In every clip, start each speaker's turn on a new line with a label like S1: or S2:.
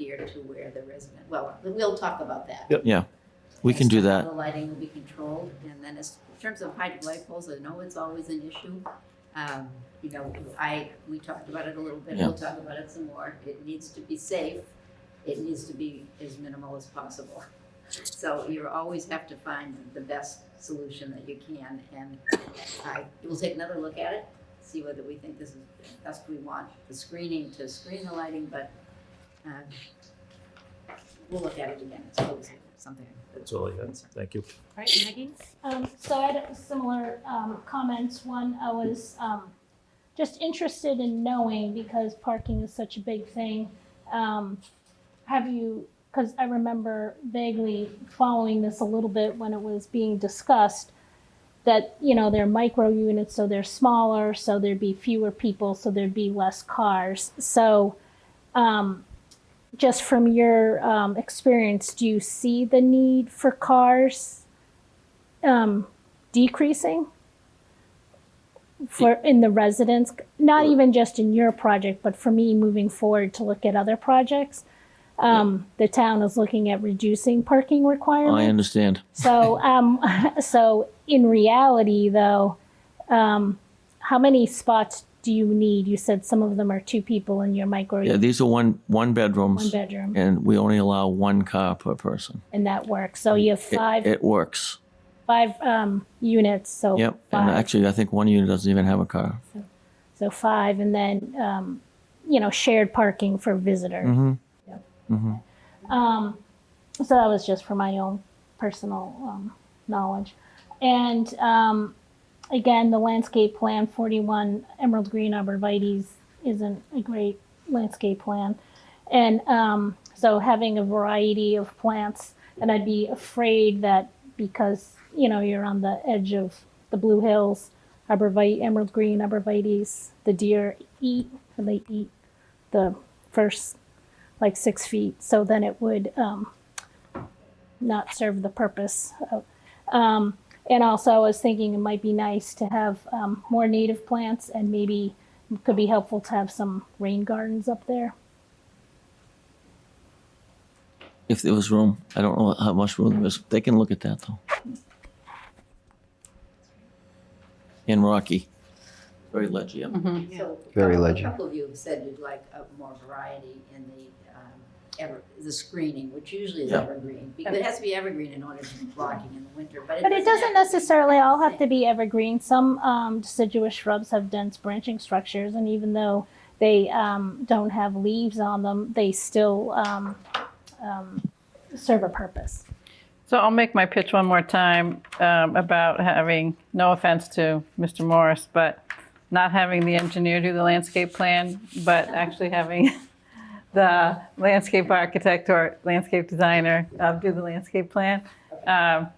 S1: to where the resident, well, we'll talk about that.
S2: Yep.
S3: Yeah, we can do
S1: As to how
S3: that.
S1: The lighting will be controlled, and then as, in terms of height of light poles, I know it's always an issue. Um, you know, I, we talked about it a little bit,
S3: Yeah.
S1: we'll talk about it some more, it needs to be safe, it needs to be as minimal as possible. So you always have to find the best solution that you can, and I, we'll take another look at it, see whether we think this is the best we want, the screening to screen the lighting, but, um, we'll look at it again, it's always something.
S2: That's all I had. Thank you.
S4: Right, Maggie?
S5: Um, so I had similar um, comments. One, I was um, just interested in knowing because parking is such a big thing. Um, have you? Because I remember vaguely following this a little bit when it was being discussed. That you know they're micro units, so they're smaller, so there'd be fewer people, so there'd be less cars. So, um, just from your um, experience, do you see the need for cars um, decreasing for in the residents, not even just in your project, but for me moving forward to look at other projects. Um, The town is looking at reducing parking requirements.
S3: I understand.
S5: So, um, so in reality, though, um, how many spots do you need? You said some of them are two people in your micro
S3: Yeah, these are one one
S5: one
S3: bedrooms,
S5: bedroom,
S3: and we only allow one car per person.
S5: and that works. So you have
S3: It,
S5: five
S3: it works.
S5: five um, units. So
S3: Yep.
S5: five.
S3: And actually, I think one unit doesn't even have a car.
S5: So five, and then, um, you know, shared parking for visitors.
S3: hmm
S5: Yep.
S3: hmm
S5: Um, so that was just for my own personal, um, knowledge. And, um, again, the landscape plan forty-one Emerald Green Arborvitae's isn't a great landscape plan. And, um, so having a variety of plants, and I'd be afraid that because, you know, you're on the edge of the Blue Hills, arborvitae, emerald green arborvitae's, the deer eat, or they eat the first like six feet, so then it would um, not serve the purpose. Of, um, and also, I was thinking it might be nice to have um, more native plants, and maybe it could be helpful to have some rain gardens up there.
S3: If there was room, I don't know how much room there is. They can look at that though. In Rocky, very ledgy. up.
S1: So
S6: Very
S1: a couple-
S6: legend.
S1: A couple of you have said you'd like a more variety in the, um, ever, the screening, which usually is
S3: Yeah.
S1: evergreen. Because it has to be evergreen in order to be blocking in the winter, but it
S5: But
S1: doesn't.
S5: it doesn't
S1: have to be.
S5: necessarily all have to be evergreen. Some um, deciduous shrubs have dense branching structures, and even though they um, don't have leaves on them, they still um, um, serve a purpose.
S4: So I'll make my pitch one more time um, about having, no offense to Mr. Morris, but not having the engineer do the landscape plan, but actually having the landscape architect or landscape designer uh, do the landscape plan. Um,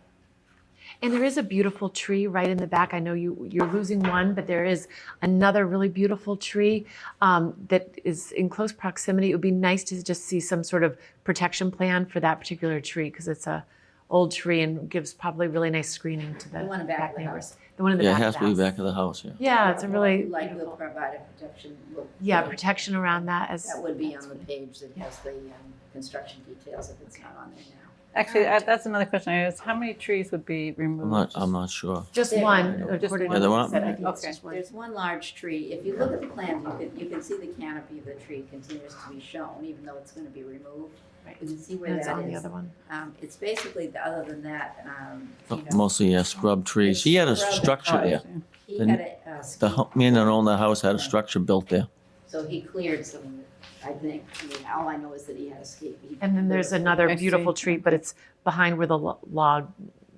S7: And there is a beautiful tree right in the back. I know you you're losing one, but there is another really beautiful tree um, that is in close proximity. It would be nice to just see some sort of protection plan for that particular tree because it's a old tree and gives probably really nice screening to the,
S1: The one in back of the
S7: neighbors.
S1: house.
S7: The one in the
S3: Yeah, it
S7: back.
S3: has
S7: of
S3: to
S7: the
S3: be
S7: house.
S3: back of the house. Yeah.
S7: Yeah, it's a really
S1: Like we'll
S7: beautiful-
S1: provide a protection, we'll.
S7: yeah protection around that as
S1: That would be on the page that has the, um, construction details if it's not on there now.
S4: Actually, I- that's another question I asked, how many trees would be removed?
S3: I'm not. I'm not sure.
S7: just
S1: There.
S7: one.
S4: Just
S7: according
S4: one.
S3: Yeah,
S7: to
S3: the
S7: what
S3: one-
S7: you said. I think it's
S4: Okay.
S7: just one.
S1: There's one large tree, if you look at the plan, you can, you can see the canopy of the tree continues to be shown, even though it's gonna be removed.
S7: Right.
S1: You can see where
S7: And it's
S1: that
S7: on the
S1: is.
S7: other one.
S1: Um, it's basically, the- other than that, um, you know,
S3: Mostly yeah, scrub trees. He had a
S4: Oh,
S3: structure there.
S1: he
S3: the-
S1: had a, uh ski
S3: The hu- man that owned the house had a structure built there.
S1: So he cleared some, of it, I think, I mean, all I know is that he had a skate. He-
S7: And then there's
S4: I
S7: another
S4: see.
S7: beautiful tree, but it's behind where the lo- log,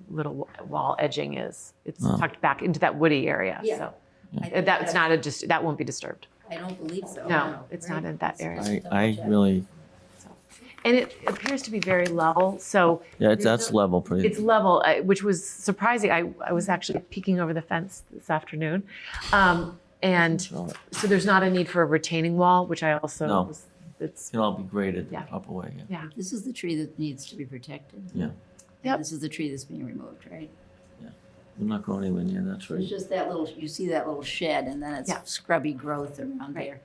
S7: little wall edging is. It's
S3: Oh.
S7: tucked back into that woody area,
S1: Yeah.
S7: so.
S1: I
S7: uh,
S1: think
S7: That's not a, just, that won't be disturbed.
S1: I don't believe so.
S7: No, it's not in that area.
S3: I, I really
S7: And it appears to be very level, so
S3: yeah. It's that's level pretty.
S7: it's level, uh, which was surprising. I, I was actually peeking over the fence this afternoon. Um, And
S3: Sure. It
S7: so there's not a need for a retaining wall, which I also,
S3: No.
S7: was- it's,
S3: can all be graded
S7: Yeah.
S3: up away. Yeah.
S1: This is the tree that needs to be protected.
S3: Yeah.
S7: Yep.
S1: This is the tree that's being removed, right?
S3: I'm not going anywhere near that
S1: It's
S3: tree.
S1: just that little, you see that little shed and then it's
S7: Yeah.
S1: scrubby growth around
S7: Right.
S1: there.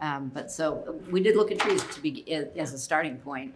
S1: Um, But so, we did look at trees to be, as a starting point,